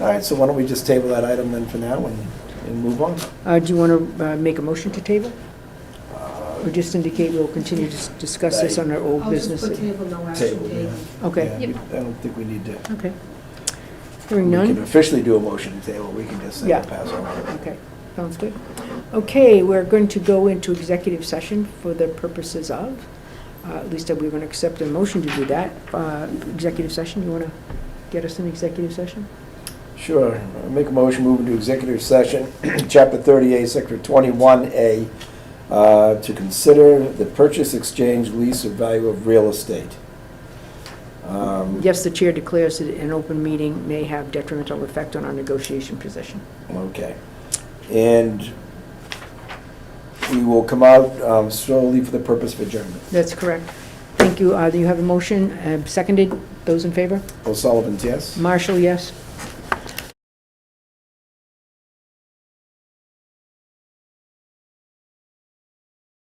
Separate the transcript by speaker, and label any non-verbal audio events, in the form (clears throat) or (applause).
Speaker 1: All right, so why don't we just table that item then for now and, and move on?
Speaker 2: Uh, Do you want to make a motion to table? Or just indicate we'll continue to s- discuss this on our old
Speaker 3: I'll just
Speaker 2: business?
Speaker 3: put table, no action
Speaker 1: Table,
Speaker 3: taken.
Speaker 1: yeah.
Speaker 2: Okay,
Speaker 1: Yeah, we- I don't think we need to,
Speaker 2: okay.
Speaker 1: we
Speaker 2: Hearing
Speaker 1: can
Speaker 2: none?
Speaker 1: officially do a motion to table, we can just say
Speaker 2: Yeah.
Speaker 1: we'll pass on.
Speaker 2: Okay, sounds good. Okay, we're going to go into executive session for the purposes of, uh, at least we're going to accept a motion to do that. Uh, Executive session, you want to get us an executive session?
Speaker 1: Sure, Uh, make a motion, move into executive session, (clears throat) chapter thirty-eight, sector twenty-one A, uh, to consider the purchase, exchange, lease, or value of real estate. Um,
Speaker 2: Yes, the chair declares that an open meeting may have detrimental effect on our negotiation position.
Speaker 1: Okay. And we will come out um, solely for the purpose of adjournment.
Speaker 2: That's correct. Thank you. Uh, You have a motion, uh, seconded. Those in favor?
Speaker 1: O'Sullivan, yes?
Speaker 2: Marshall, yes?